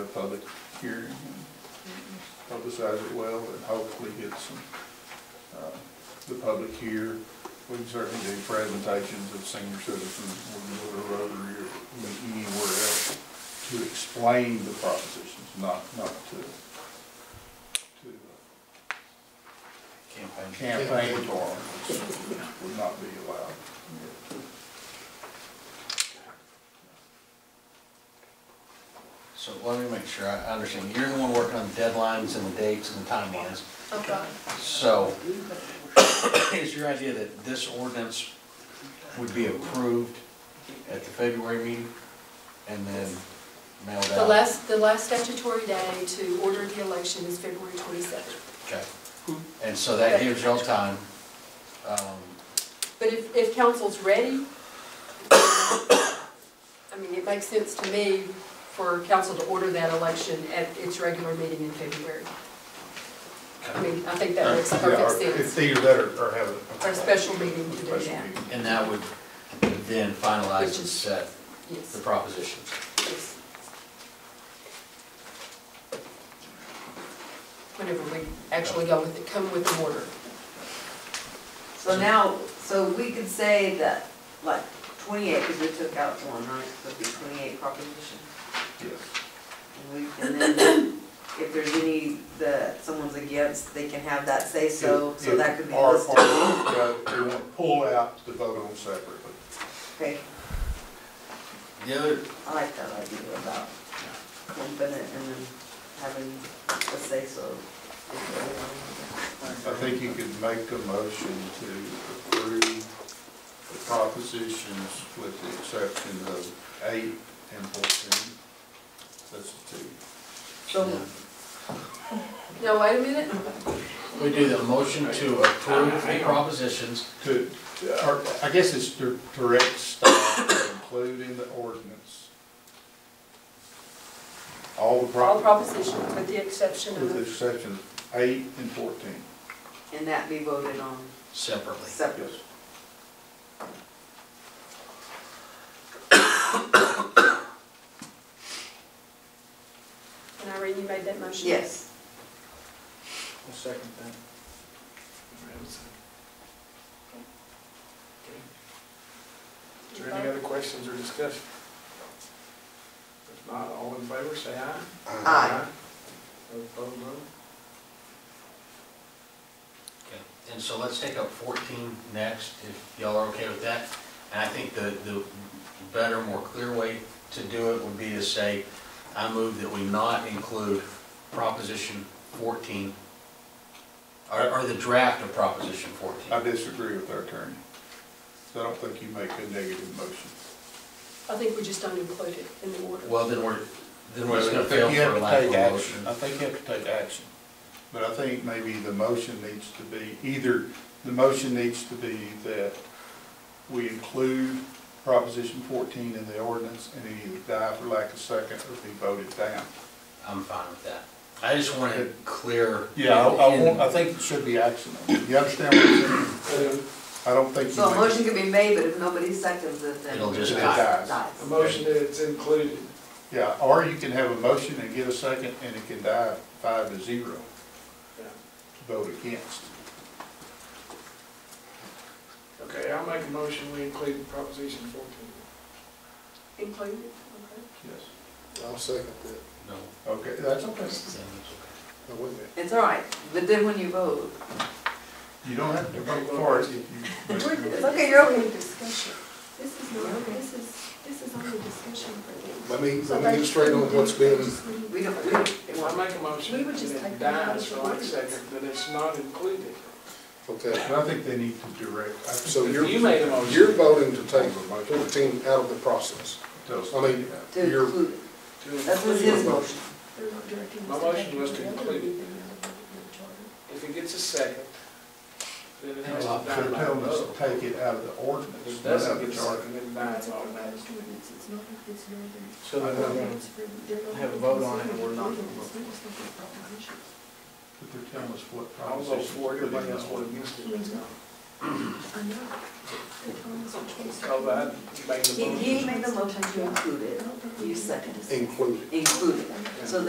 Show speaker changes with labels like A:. A: a public hearing and publicize it well and hopefully get some, uh, the public here. We can certainly do presentations of senior citizens, whether we're Rotary or anywhere else, to explain the propositions, not, not to, to campaign for them, which would not be allowed.
B: So let me make sure I I understand. You're the one working on the deadlines and the dates and the timelines.
C: Oh, God.
B: So is your idea that this ordinance would be approved at the February meeting and then mailed out?
C: The last, the last statutory day to order the election is February 27th.
B: Okay. And so that gives y'all time. um,
C: But if, if council's ready, I mean, it makes sense to me for council to order that election at its regular meeting in February. I mean, I think that makes
A: Yeah,
C: perfect
A: or It's
C: sense,
A: either that or, or have a.
C: Or a special meeting to do
A: Special
C: that.
A: meeting.
B: And that would then finalize and set the
C: yes,
B: propositions.
C: yes. Whenever we actually go with it, come with the order.
D: So now, so we could say that, like, twenty-eight, because we took out one, right, so it'd be twenty-eight propositions.
A: Yes.
D: And we- And then if there's any that someone's against, they can have that say-so, so that could be
A: Or- or-
D: listed.
A: yeah, They want to pull out the vote on separately.
D: Okay,
B: The other,
D: I like that idea about lumping it and then having a say-so.
A: I think you could make a motion to approve the propositions with the exception of eight and fourteen. That's the two.
D: So,
C: Now, wait a minute,
B: we do the motion to approve the propositions.
A: To, or, I guess it's to direct staff to include in the ordinance. All the
C: all
A: propositions,
C: propositions with the exception
A: with the
C: of,
A: exception of eight and fourteen.
D: and that be voted on
B: Separately.
A: Yes.
D: separate.
C: and Irene, you made that motion?
D: Yes,
E: I'll second that. Is there any other questions or discussion? If not, all in favor, say aye.
D: Aye.
E: Those opposed, no.
B: Okay, and so let's take up fourteen next, if y'all are okay with that. And I think the, the better, more clear way to do it would be to say, I move that we not include proposition fourteen, or, or the draft of proposition
A: I
B: fourteen.
A: disagree with our attorney. So I don't think you make a negative motion.
C: I think we just don't include it in the order.
B: Well, then we're, then we're just
A: Well, I
B: gonna
A: think
B: fail
A: you have
B: for
A: to
B: lack of
A: take
B: a
A: action. uh,
B: motion.
A: I think you have to take action. But I think maybe the motion needs to be, either, the motion needs to be that we include Proposition 14 in the ordinance and it either die for lack of second or be voted down.
B: I'm fine with that. I just want it clear. in-
A: think it should be action. You understand what I'm saying? I don't think you.
D: so a
A: make-
D: motion can be made, but if nobody seconds it, then.
B: It'll just
A: It
B: die.
A: dies.
D: Dies.
E: A motion that it's included.
A: Yeah, or you can have a motion and get a second and it can die five to zero
E: Yeah.
A: to vote against.
E: Okay, I'll make a motion, we include proposition fourteen.
C: Include it,
A: Yes.
F: I'll second that.
B: No,
A: Okay, that's okay.
B: then it's okay.
F: Now, wait a minute.
D: It's all right, but then when you vote,
A: You don't have to vote for it if
C: okay.
A: you.
C: We're-
D: Okay, you're-
C: only discussion. This is not, this is, this is only discussion for them.
F: Let me,
C: So
F: let me
C: they
F: get straight on
C: shouldn't
F: what's
C: do-
F: been,
C: just leave
D: we
C: it.
D: don't, we don't, it
E: Well, I
D: won't.
E: make a motion,
C: We would
E: and
C: just take
E: it
C: that out of
E: dies for
C: the
E: lack of
C: ordinance.
E: second, that it's not included.
F: okay.
A: But I think they need to direct. I
F: So
A: think
F: you're,
E: You made a motion.
F: you're voting to take fourteen out of the process.
A: those-
F: I mean,
D: to
F: you're,
D: include it.
E: To
D: That was
E: include-
D: his motion.
C: They're not directing us
E: My
C: to
E: motion
C: take
E: was
C: it
E: to
C: out of
E: include it.
C: anything out of the charter.
E: If it gets a second, then it has to
A: They're
E: die by
A: telling us
E: vote.
A: to take it out of the
E: If
A: ordinance,
E: it
A: not out of
E: doesn't
A: the
E: get a
A: charter.
E: second, then it dies
C: It's a
E: automatically.
C: proposed ordinance, it's not, it's not. a-
E: So
A: then we're gonna
C: They're not
E: have a vote on it, and we're not gonna
C: considering
E: vote.
C: it. It's not a proposition.
A: But they're telling us what
E: I'll vote
A: proposition.
E: for it, everybody else voted against it.
C: Mhm.
G: Oh, but I made the
D: He,
G: motion.
D: he made the motion to include it, you second,
F: included.
D: include it. So